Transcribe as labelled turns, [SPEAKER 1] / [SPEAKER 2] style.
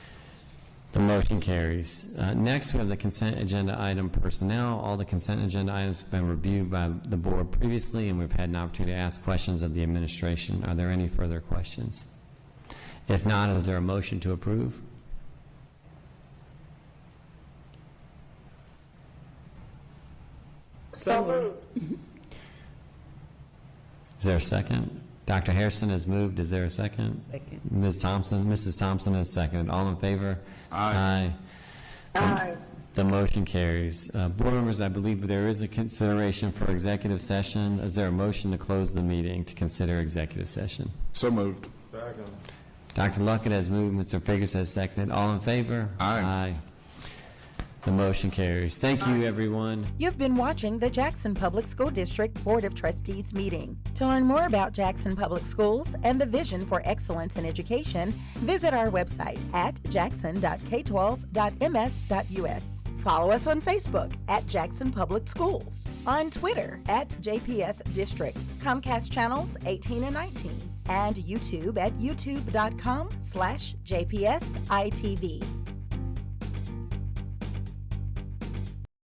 [SPEAKER 1] The motion carries. Uh, Next, we have the consent agenda item personnel. All the consent agenda items have been reviewed by the board previously, and we've had an opportunity to ask questions of the administration. Are there any further questions? If not, is there a motion to approve?
[SPEAKER 2] So moved.
[SPEAKER 1] Is there a second? Dr. Harrison has moved. Is there a second?
[SPEAKER 2] Second.
[SPEAKER 1] Ms. Thompson, Mrs. Thompson has seconded. All in favor? Aye.
[SPEAKER 2] Aye.
[SPEAKER 1] The motion carries. Uh, Board members, I believe there is a consideration for executive session. Is there a motion to close the meeting to consider executive session?
[SPEAKER 3] So moved.
[SPEAKER 1] Dr. Luckett has moved, Mr. Figgis has seconded. All in favor?
[SPEAKER 3] Aye.
[SPEAKER 1] Aye. The motion carries. Thank you, everyone.
[SPEAKER 4] You've been watching the Jackson Public School District Board of Trustees meeting. To learn more about Jackson Public Schools and the vision for excellence in education, visit our website at jackson.k12.ms.us. Follow us on Facebook at Jackson Public Schools, on Twitter at JPS District, Comcast channels 18 and 19, and YouTube at youtube.com/jpsitv.